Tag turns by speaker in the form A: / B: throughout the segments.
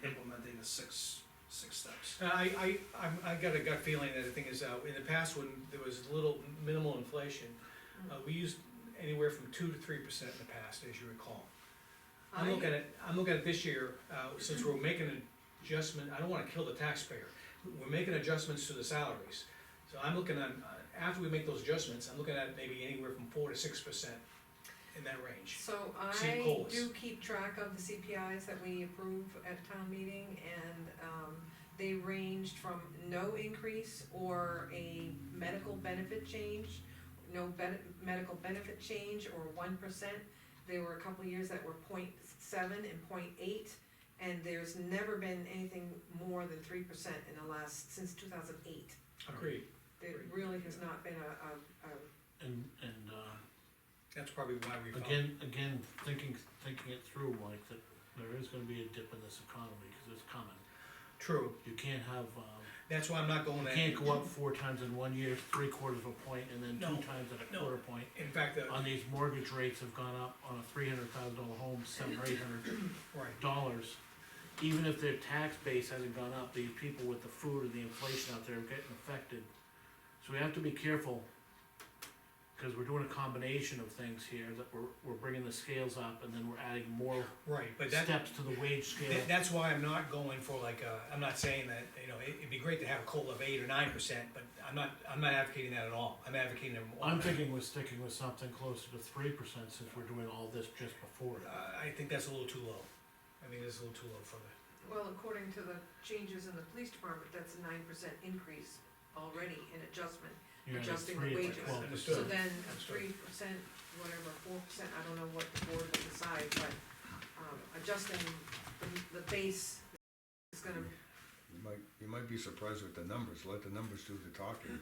A: there's six, six steps.
B: And Uh, I, I, I'm- I got a gut feeling that the thing is, uh, in the past, when there was little minimal inflation,
C: Mm-hmm.
B: uh, we used anywhere from two to three percent in the past, as you recall. I'm looking at, I'm looking at this year, uh, since we're making an adjustment, I don't wanna kill the taxpayer, we're making adjustments to the salaries. So I'm looking at, after we make those adjustments, I'm looking at maybe anywhere from four to six percent in that range.
D: So
B: Same
D: I
B: goals.
D: do keep track of the CPIs that we approve at town meeting and, um, they ranged from no increase or a medical benefit change, no ben- medical benefit change or one percent. There were a couple of years that were 0.7 and 0.8, and there's never been anything more than three percent in the last, since two thousand eight.
B: Agreed,
D: There really has not been a, a, a
C: And, and, uh,
B: that's probably why we found.
C: again, again, thinking, thinking it through, like, that there is gonna be a dip in this economy, cause it's coming.
B: True,
C: You can't have, um,
B: that's why I'm not going
C: you
B: there.
C: can't go up four times in one year, three quarters of a point, and then
B: No,
C: two times at a
B: no.
C: quarter point.
B: In fact, uh,
C: On these mortgage rates have gone up on a three hundred thousand dollar home, seven or eight hundred
B: right,
C: dollars. Even if their tax base hasn't gone up, these people with the food and the inflation out there are getting affected. So we have to be careful, cause we're doing a combination of things here, that we're, we're bringing the scales up and then we're adding more
B: right, but that,
C: steps to the wage scale.
B: That, that's why I'm not going for like, uh, I'm not saying that, you know, it, it'd be great to have a COLA of eight or nine percent, but I'm not, I'm not advocating that at all, I'm advocating. a-
C: I'm thinking we're sticking with something closer to three percent since we're doing all this just before
B: Uh,
C: it.
B: I think that's a little too low, I think that's a little too low for the,
D: Well, according to the changes in the police department, that's a nine percent increase already in adjustment.
C: You're at
D: Adjusting the
C: three, it's
D: wages.
C: twelve
D: So
B: Understood.
C: percent.
D: then a
B: Sure.
D: three percent, whatever, four percent, I don't know what the board will decide, but, um, adjusting the, the base is gonna,
E: You might, you might be surprised with the numbers, let the numbers do the talking.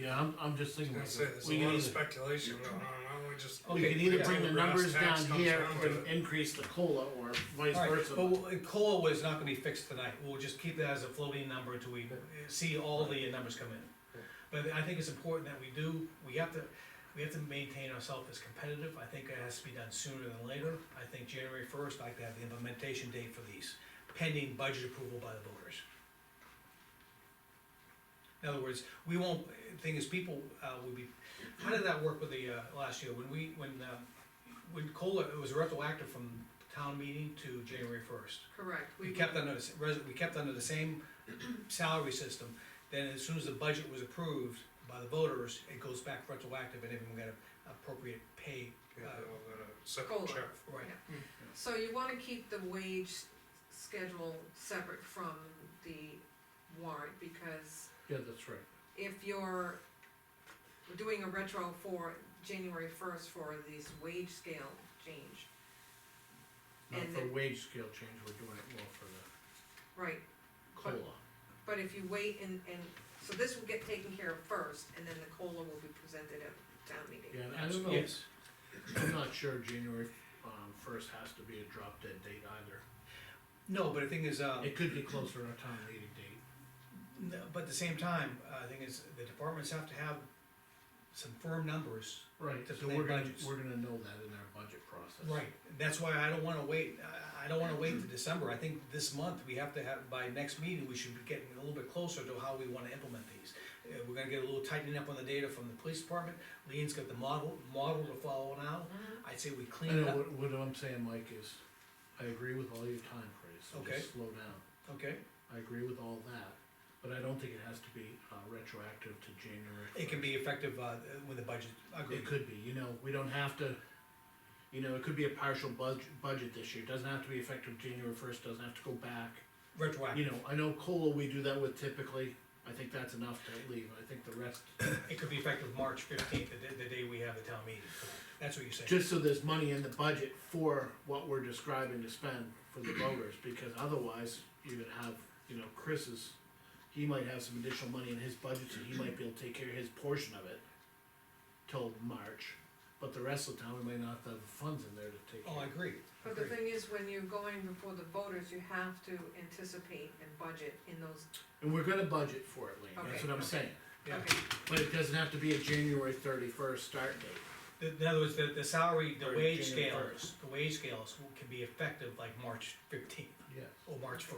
C: Yeah, I'm, I'm just thinking.
F: I
C: like,
F: say, there's
C: we
F: a
C: can
F: lot of
C: either-
F: speculation going on, why don't we just,
C: We
B: Okay,
C: can either
B: yeah.
C: bring the
F: Brass
C: numbers
F: tacks
C: down
F: comes
C: here
F: down
C: and
F: to
C: increase the COLA or vice
B: Alright,
C: versa.
B: but w- COLA was not gonna be fixed tonight, we'll just keep that as a floating number until we see all the numbers come in. But I think it's important that we do, we have to, we have to maintain ourselves as competitive, I think it has to be done sooner than later. I think January first, I'd like to have the implementation date for these, pending budget approval by the voters. In other words, we won't, thing is, people, uh, would be, how did that work with the, uh, last year, when we, when, uh, when COLA, it was retroactive from town meeting to January first.
D: correct.
B: We kept under, the- res- we kept under the same salary system, then as soon as the budget was approved by the voters, it goes back retroactive and everyone got a appropriate pay.
F: you know,
B: uh,
F: we're gonna separate
D: Cola.
F: check.
B: Right,
D: So you wanna keep the wage s- schedule separate from the warrant, because
C: Yeah, that's right.
D: if you're doing a retro for January first for this wage scale change,
C: Not
D: And
C: for
D: the-
C: wage scale change, we're doing it more for the
D: right,
C: COLA.
D: but if you wait and, and, so this will get taken care of first, and then the COLA will be presented at town meeting.
C: Yeah, and I don't know,
B: yes.
C: I'm not sure January, um, first has to be a drop dead date either.
B: No, but the thing is, uh,
C: It could be closer to our town meeting date.
B: no, but at the same time, uh, the thing is, the departments have to have some firm numbers.
C: Right,
B: to
C: so
B: plan
C: we're gonna,
B: budgets.
C: we're gonna know that in our budget process.
B: Right, that's why I don't wanna wait, I, I don't wanna wait to December, I think this month, we have to have, by next meeting, we should be getting a little bit closer to how we wanna implement these. Uh, we're gonna get a little tightening up on the data from the police department, Lean's got the model, model to follow now,
D: Mm-hmm.
B: I'd say we
C: I
B: clean it
C: know,
B: up,
C: what, what I'm saying, Mike, is I agree with all your time praise, so
B: Okay.
C: just slow down.
B: okay?
C: I agree with all that, but I don't think it has to be, uh, retroactive to January.
B: It can be effective, uh, with the budget, agreed.
C: It could be, you know, we don't have to, you know, it could be a partial budget, budget this year, doesn't have to be effective January first, doesn't have to go back. You
B: retroactive,
C: know, I know COLA, we do that with typically, I think that's enough to leave, I think the rest,
B: it could be effective March fifteenth, the, day- the day we have the town meeting, that's what you're saying.
C: just so there's money in the budget for what we're describing to spend for the voters, because otherwise, you're gonna have, you know, Chris's, he might have some additional money in his budget, so he might be able to take care of his portion of it till March, but the rest of the town, we may not have the funds in there to take care
B: Oh,
C: of
B: I
C: it.
B: agree,
D: But the
B: agree,
D: thing is, when you're going before the voters, you have to anticipate and budget in those,
C: And we're gonna budget for it, Lean, that's
D: Okay,
C: what I'm
D: okay.
C: saying,
B: yeah.
D: okay,
C: but it doesn't have to be a January thirty-first start date.
B: The- In other words, the, the salary,
C: Or
B: the wage
C: January
B: scales, the wage scales will- can be effective like March fifteenth
C: Yes.
B: or March